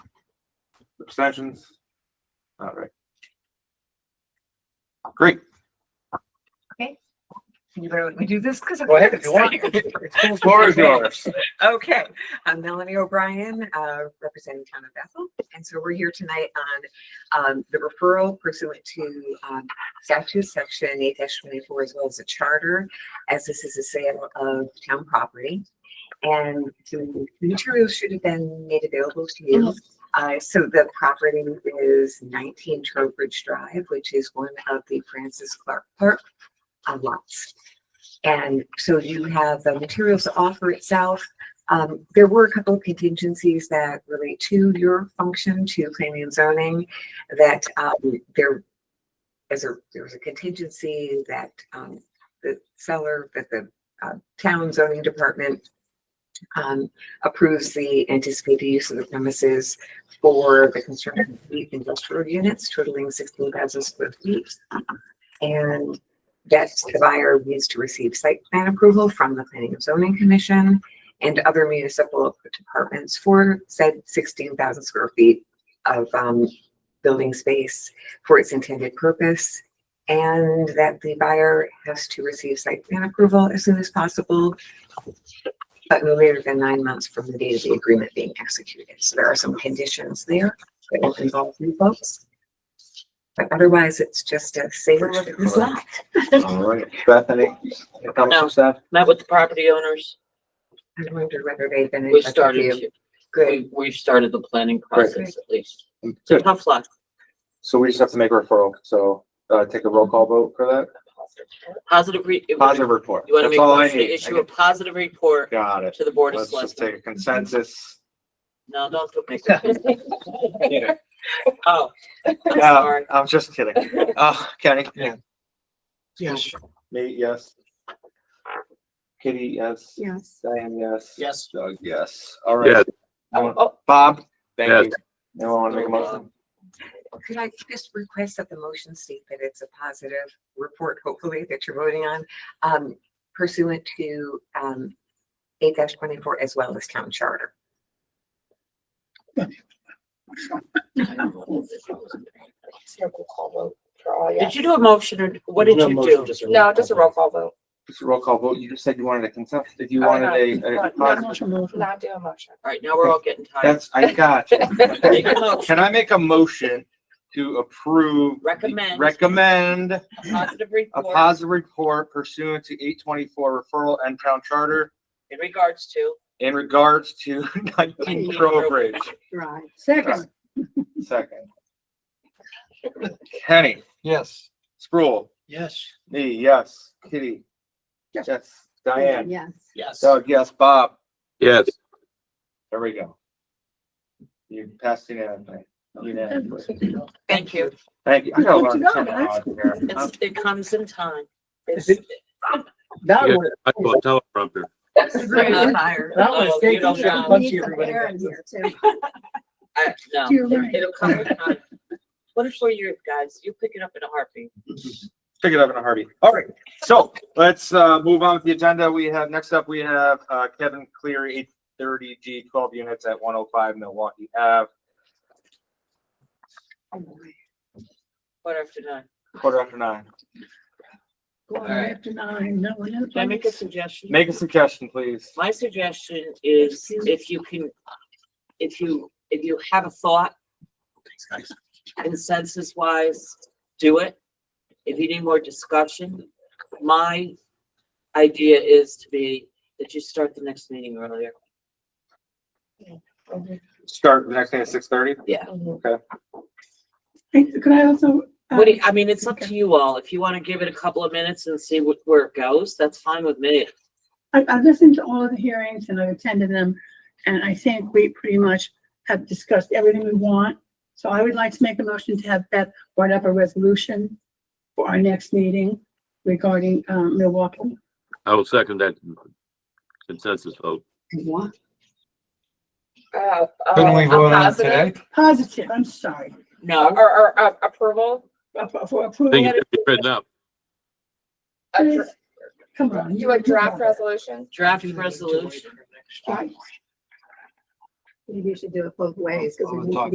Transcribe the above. Abstentions? All right. Great. You better let me do this because. Go ahead if you want. Floor is yours. Okay, I'm Melanie O'Brien, uh, representing Town of Bethel. And so we're here tonight on, um, the referral pursuant to, um, statute section eight twenty-four as well as the charter, as this is a sale of town property. And the materials should have been made available to you. Uh, so the property is nineteen Trowbridge Drive, which is one of the Francis Clark Park uh, lots. And so you have the materials to offer itself. Um, there were a couple of contingencies that relate to your function to planning and zoning that, um, there as a, there was a contingency that, um, the seller, that the, uh, town zoning department um, approves the anticipated use of the premises for the construction of eight industrial units totaling sixteen thousand square feet. And that the buyer needs to receive site plan approval from the Planning and Zoning Commission and other municipal departments for said sixteen thousand square feet of, um, building space for its intended purpose. And that the buyer has to receive site plan approval as soon as possible, but no later than nine months from the date of the agreement being executed. So there are some conditions there that will involve you folks. But otherwise, it's just a sale of the lot. All right, Bethany, your comments and stuff? Met with the property owners. I wonder whether they've been in We touch with started, you. to- Good, we, we've started the planning Great. process at least. Good. Tough luck. So we just have to make a referral, so, uh, take a roll call vote for that, Positive re. You wanna positive report. make That's a all I motion need. to I issue a get- positive report Got it. to the Board of Let's just Selectmen. take a consensus. No, don't go make that. Yeah. Oh, I'm No, sorry. I'm just kidding. Uh, Kenny? Yeah. Yes. Nate, yes. Kitty, yes. yes. Diane, yes. Yes. Doug, yes. All right. Oh, oh, Bob, thank Yes. you. Anyone want to make a motion? Could I just request that the motion state that it's a positive report, hopefully, that you're voting on, um, pursuant to, um, eight twenty-four as well as town charter. Did you do a motion or what did No you motion, do? just a roll No, call just a vote. roll call vote. Just a roll call vote. You just said you wanted a consent, if you Oh, wanted no. a- a, positive- Not do a motion. All right, now we're all getting tired. that's, I got you. Make a motion, Can I make a motion to approve? the- Recommend. Recommend a positive a report positive report pursuant to eight twenty-four referral and town charter in regards to. in regards to nineteen Trowbridge. Right. Second. Second. Kenny, Yes. Spruill, Yes. me, yes, Kitty. Yes. Yes, Diane, Yes. Yes. Doug, yes, Bob, Yes, there we go. You passed unanimously. Unanimously. Thank you. Thank you. I got a lot of terminology here. I'm- It's, it comes in time. Is It's. it- That Yeah. one, I call it teleprompter. Uh, that one Oh, is you taken. don't I'm gonna know. punch you, everybody. I, no, it'll come in time. Twenty-four years, guys, you pick it up in a heartbeat. Pick it up in a heartbeat. All right, so let's uh move on with the agenda. We have, next up, we have uh Kevin Cleary, eight thirty G, twelve units at one oh five Milwaukee Ave. Quarter after nine. Quarter after nine. Alright. Can I make a suggestion? Make a suggestion, please. My suggestion is if you can, if you, if you have a thought, consensus wise, do it. If you need more discussion, my idea is to be that you start the next meeting earlier. Start the next thing at six thirty. Could I also? uh, What do you, I mean, it's up to you all. If you want to give it a couple of minutes and see what, where it goes, that's fine with me. um, I, I've listened to all of the hearings and I've attended them, and I think we pretty much have discussed everything we want. So I would like to make a motion to have Beth write up a resolution for our next meeting regarding, um, Milwaukee. I will second that consensus vote. Uh, uh, Couldn't we a vote on it positive today? Positive, I'm sorry, No. Or, or, uh, approval? for- for I think approval. it should be written up. A dr- Come on. You a draft resolution? draft resolution. Maybe you should do it both ways, because we We'll need to talk